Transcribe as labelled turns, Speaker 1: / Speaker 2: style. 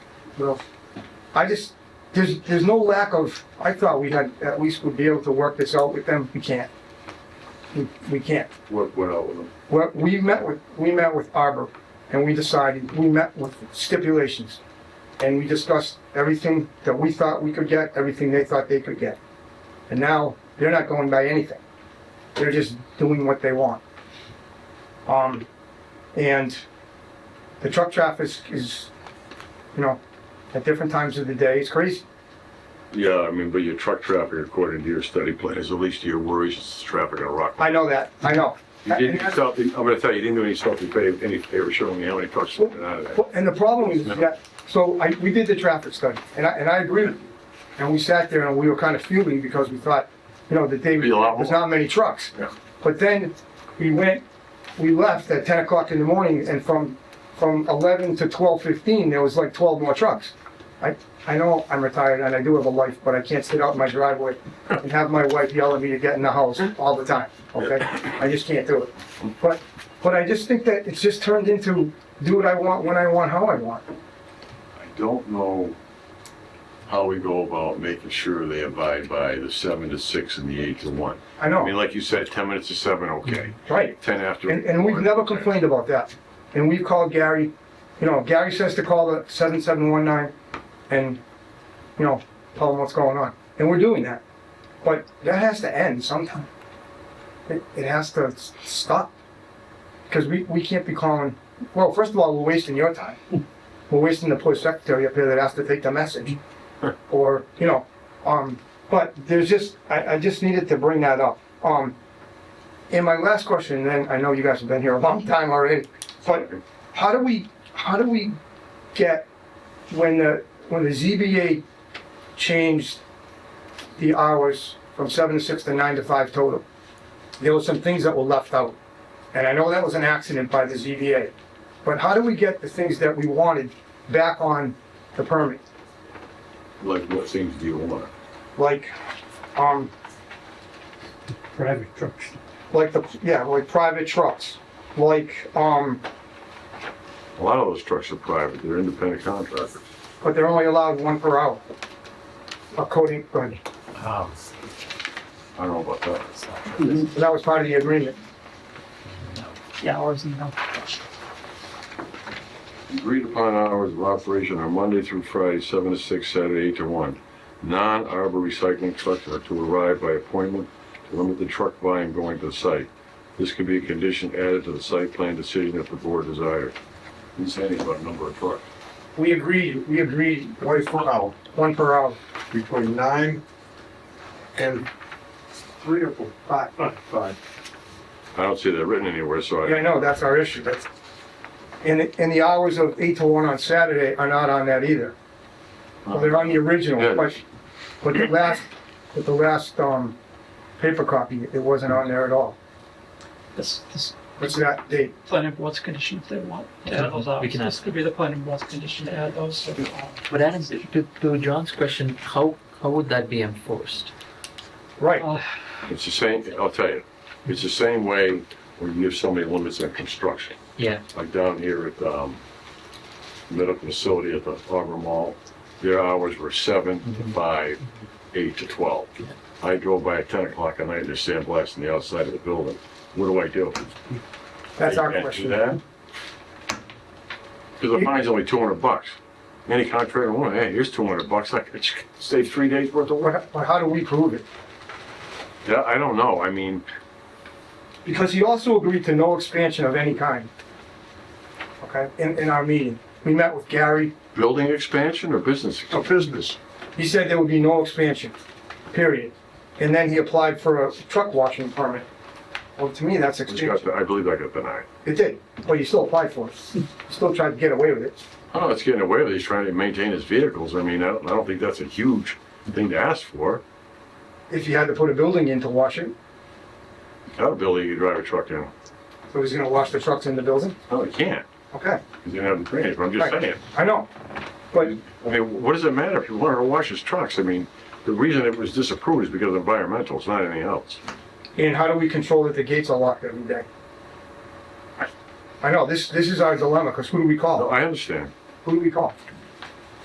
Speaker 1: what else? I just, there's, there's no lack of, I thought we had, at least would be able to work this out with them. We can't. We, we can't.
Speaker 2: What went out with them?
Speaker 1: Well, we met with, we met with Arbor, and we decided, we met with stipulations. And we discussed everything that we thought we could get, everything they thought they could get. And now, they're not going by anything. They're just doing what they want. Um, and the truck traffic is, you know, at different times of the day, it's crazy.
Speaker 2: Yeah, I mean, but your truck traffic, according to your study plan, is at least your worries is traffic on Rockland.
Speaker 1: I know that, I know.
Speaker 2: You
Speaker 1: And
Speaker 2: didn't
Speaker 1: that's-
Speaker 2: stop, I'm gonna tell you, you didn't do any stopping pay, any favor showing me how many trucks went out of that.
Speaker 1: Well, And the problem is that, so I, we did the traffic study, and I, and I agree with you. And we sat there and we were kind of fuming because we thought, you know, the day,
Speaker 2: Be a lot
Speaker 1: there's
Speaker 2: more.
Speaker 1: not many trucks.
Speaker 2: Yeah.
Speaker 1: But then we went, we left at ten o'clock in the morning and from, from eleven to twelve fifteen, there was like twelve more trucks. I, I know I'm retired and I do have a life, but I can't sit out in my driveway and have my wife yell at me to get in the house all the time, okay? I just can't do it. But, but I just think that it's just turned into do what I want, when I want, how I want.
Speaker 2: I don't know how we go about making sure they abide by the seven to six and the eight to one.
Speaker 1: I
Speaker 2: I mean,
Speaker 1: know,
Speaker 2: like you said, ten minutes to seven, okay,
Speaker 1: right?
Speaker 2: ten after.
Speaker 1: Mm-hmm. And, and we've never complained about that. And we've called Gary, you know, Gary says to call the 7719 and, you know, tell them what's going on. And we're doing that. But that has to end sometime. It, it has to s- stop. Because we, we can't be calling, well, first of all, we're wasting your time. We're wasting the poor secretary up here that has to take the message. Or, you know, um, but there's just, I, I just needed to bring that up. Um, and my last question, then I know you guys have been here a long time already, but how do we, how do we get, when the, when the ZBA changed the hours from seven to six to nine to five total, there were some things that were left out. And I know that was an accident by the ZBA, but how do we get the things that we wanted back on the permit?
Speaker 2: Like, what things do you want?
Speaker 1: Like, um,
Speaker 3: private trucks.
Speaker 1: like the, yeah, like private trucks, like, um,
Speaker 2: A lot of those trucks are private, they're independent contractors.
Speaker 1: but they're only allowed one per hour. According, uh,
Speaker 2: I don't know about that.
Speaker 1: that was part of the agreement.
Speaker 4: Yeah, hours and no.
Speaker 2: Agreed upon hours of operation are Monday through Friday, seven to six, Saturday, eight to one. Non-arbor recycling trucks are to arrive by appointment to limit the truck volume going to the site. This could be a condition added to the site plan decision if the board desires. Didn't say anything about number of trucks.
Speaker 1: We agreed, we agreed,
Speaker 5: Twice per hour,
Speaker 1: one per hour.
Speaker 5: between nine and three or four, five, five.
Speaker 2: I don't see that written anywhere, so
Speaker 1: Yeah, I
Speaker 2: I,
Speaker 1: know, that's our issue. That's- And, the- and the hours of eight to one on Saturday are not on that either. Well, they're on the original,
Speaker 2: Yeah.
Speaker 1: but, but the last, but the last, um, paper copy, it wasn't on there at all.
Speaker 4: This, this
Speaker 1: What's that date?
Speaker 4: planning board's condition if they want to add those hours.
Speaker 6: We can
Speaker 4: This could be the planning board's condition to add those. so, uh,
Speaker 6: But Adam, to, to John's question, how, how would that be enforced?
Speaker 1: Right,
Speaker 4: uh,
Speaker 2: it's the same, I'll tell you. It's the same way when you give somebody limits on construction.
Speaker 6: Yeah,
Speaker 2: like down here at the um, medical facility at the Harbor Mall, their hours were seven to
Speaker 1: Mm-hmm.
Speaker 2: five, eight to twelve. I drove by at ten o'clock at night, and there's sandblasting the outside of the building. What do I do?
Speaker 1: that's
Speaker 2: I
Speaker 1: our
Speaker 2: can't
Speaker 1: question.
Speaker 2: do that? Cause the fine's only two hundred bucks. Any contractor, well, hey, here's two hundred bucks, I could save three days worth of work.
Speaker 1: But, but how do we prove it?
Speaker 2: Yeah, I don't know, I mean,
Speaker 1: Because he also agreed to no expansion of any kind. Okay, in, in our meeting. We met with Gary,
Speaker 2: building expansion or business?
Speaker 1: Oh,
Speaker 5: A business.
Speaker 1: He said there would be no expansion, period. And then he applied for a truck washing permit. Well, to me, that's expansion.
Speaker 2: expansion? I believe I got denied.
Speaker 1: It did, but you still applied for it. Still tried to get away with it.
Speaker 2: I don't know, it's getting away with it. He's trying to maintain his vehicles. I mean, I don't, I don't think that's a huge thing to ask for.
Speaker 1: If you had to put a building in to wash it,
Speaker 2: Got a building, you drive a truck in.
Speaker 1: so he's gonna wash the trucks in the building?
Speaker 2: No, you can't.
Speaker 1: Okay,
Speaker 2: He's gonna have the drainage, but I'm just
Speaker 1: Right.
Speaker 2: saying.
Speaker 1: I know. But,
Speaker 2: I mean, what does it matter if you want to wash his trucks? I mean, the reason it was disapproved is because of environmental, it's not anything else.
Speaker 1: and how do we control that the gates are locked every day? I know, this, this is our dilemma, because who do we
Speaker 2: No,
Speaker 1: call?
Speaker 2: I understand.
Speaker 1: Who do we call?